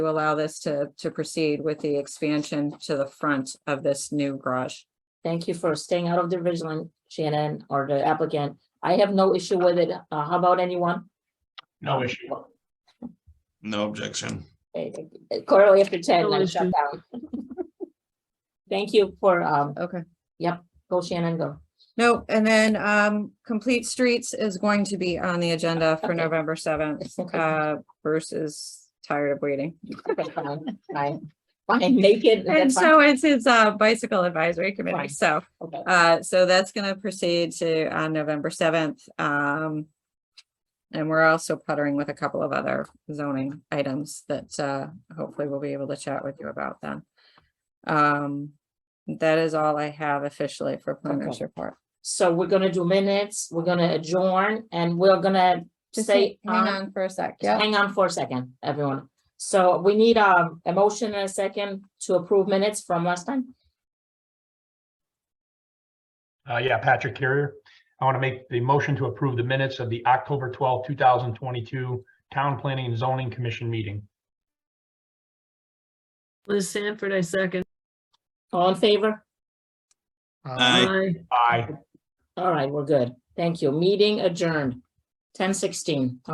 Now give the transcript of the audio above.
allow this to, to proceed with the expansion to the front of this new garage. Thank you for staying out of the vigilant, Shannon, or the applicant. I have no issue with it. Uh, how about anyone? No issue. No objection. Eh, eh, Quarterly after ten, No then shut issue. down. Thank you for, um, Okay. go Shannon, go. No, and then um, Complete Streets is going to be on the agenda for Okay. November seventh. Uh, Bruce is tired of waiting. Okay, Fine, fine, Fine, make it. And that's fine. so it's, it's a bicycle advisory committee, Fine. so, Okay. uh, so that's gonna proceed to on November seventh, um. And we're also puttering with a couple of other zoning items that, uh, hopefully we'll be able to chat with you about then. Um, that is all I have officially for planners Okay. report. So we're gonna do minutes, we're gonna adjourn, and we're gonna Just say. hang- hang um, on for a sec, yeah. Hang on for a second, everyone. So we need um, a motion and a second to approve minutes from last time. Uh, yeah, Patrick Carrier. I want to make the motion to approve the minutes of the October twelfth, two thousand twenty-two Town Planning and Zoning Commission meeting. Liz Sanford, I second. All in favor? Aye. Aye. All right, we're good. Thank you. Meeting adjourned. Ten sixteen.